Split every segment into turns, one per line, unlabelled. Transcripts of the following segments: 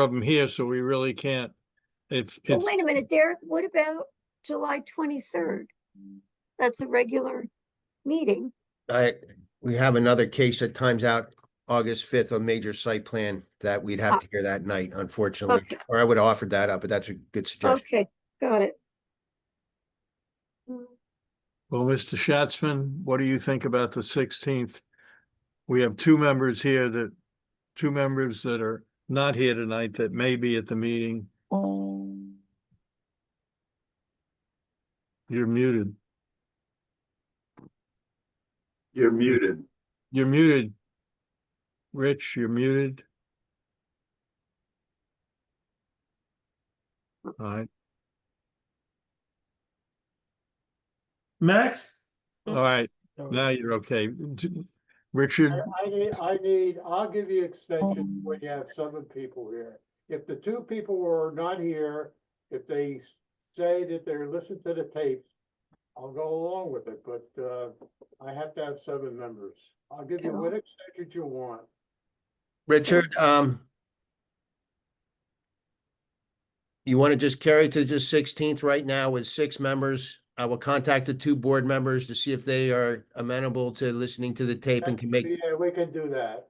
problem here, so we really can't. It's,
Well,
it's,
Oh, wait a minute, Derek, what about July twenty-third? That's a regular meeting.
I, we have another case that times out August fifth, a major site plan that we'd have to hear that night, unfortunately.
Okay.
Or I would have offered that up, but that's a good suggestion.
Okay, got it.
well, Mr. Schatzman, what do you think about the sixteenth? We have two members here that, two members that are not here tonight that may be at the meeting. You're muted.
You're muted.
You're muted. Rich, you're muted. All right,
Max?
all right, now you're okay. D- Richard,
I I need, I need, I'll give you extensions when you have seven people here. If the two people are not here, if they say that they're listening to the tapes, I'll go along with it, but, uh, I have to have seven members. I'll give you what extensions you want.
Richard, um. You want to just carry to just sixteenth right now with six members? I will contact the two board members to see if they are amenable to listening to the tape and can make,
Yeah, we can do that.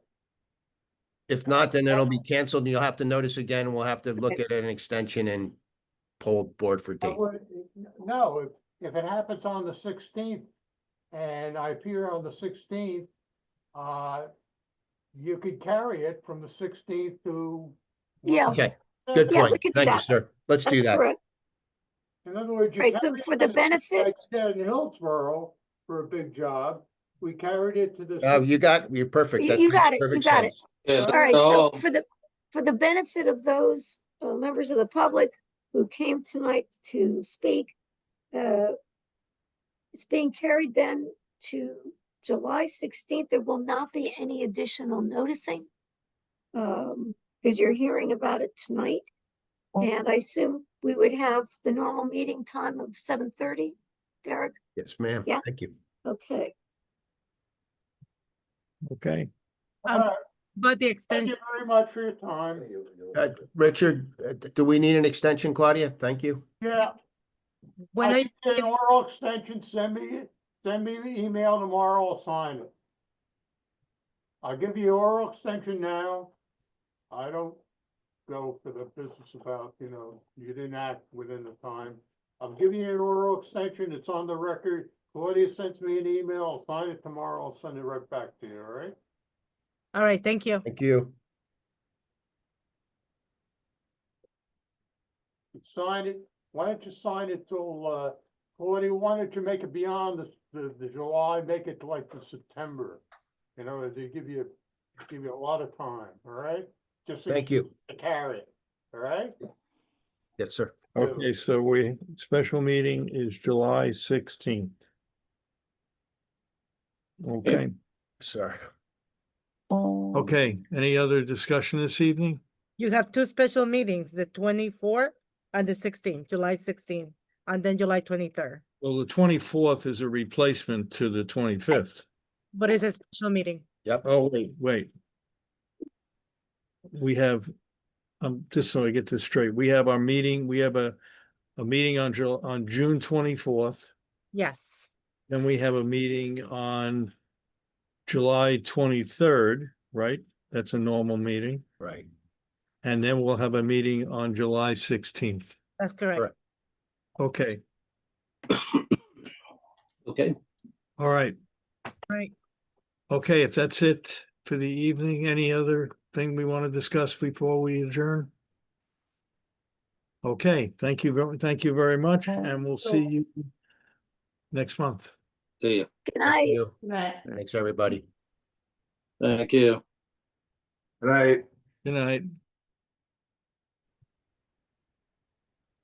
if not, then it'll be canceled and you'll have to notice again. and We'll have to look at an extension and poll board for
I
date.
would- No, if, if it happens on the sixteenth and I appear on the sixteenth, uh, you could carry it from the sixteenth to.
Yeah.
Okay, good
Yeah, we
point.
could do
Thank you,
that.
sir. Let's do
That's
that.
correct.
In other words. you
Right, so
carry
for
it
the
to like
benefit,
you did in Hillsborough for a big job, we carried it to the.
Uh, you got, you're perfect.
You-
That
you
makes
got it, you
perfect
got it.
sense.
all right, so for the, for the benefit of those uh, members of the public who came tonight to speak, uh, it's being carried then to July sixteenth. There will not be any additional noticing. Um, because you're hearing about it tonight. And I assume we would have the normal meeting time of seven thirty, Derek?
Yes, ma'am.
Yeah.
Thank you.
Okay,
okay,
All right,
But the
Thank
extension,
you very much for your time.
Uh, Richard, uh, d- do we need an extension, Claudia? Thank you.
Yeah.
when I,
get An oral extension, send me, send me the email tomorrow, I'll sign it. I'll give you oral extension now. I don't go for the business about, you know, you didn't act within the time. I'm giving you an oral extension, it's on the record. Claudia sends me an email, I'll sign it tomorrow, I'll send it right back to you, all right?
all right, thank you.
Thank you.
Sign it, why don't you sign it till, uh, Claudia, why don't you make it beyond the, the, the July, make it to like the September? You know, they give you, give you a lot of time, all right? Just to-
Thank you.
To carry it, all right?
Yes, sir.
okay, so we, special meeting is July sixteenth. Okay,
Sir.
okay, any other discussion this evening?
You have two special meetings, the twenty-four and the sixteen, July sixteen, and then July twenty-third.
Well, the twenty-fourth is a replacement to the twenty-fifth.
But it's a special meeting.
Oh, wait, wait. We have, um, just so I get this straight, we have our meeting, we have a, a meeting on Jul- on June twenty-fourth.
Yes,
Then we have a meeting on July twenty-third, right? That's a normal meeting.
Right.
And then we'll have a meeting on July sixteenth.
that's correct.
Correct.
Okay,
Okay.
all right.
Right.
Okay, if that's it for the evening, any other thing we want to discuss before we adjourn? Okay, thank you, ver- thank you very much, and we'll see you next month.
See you.
good
Thank
night.
you. Thanks, everybody.
Thank you. Right.
Good night.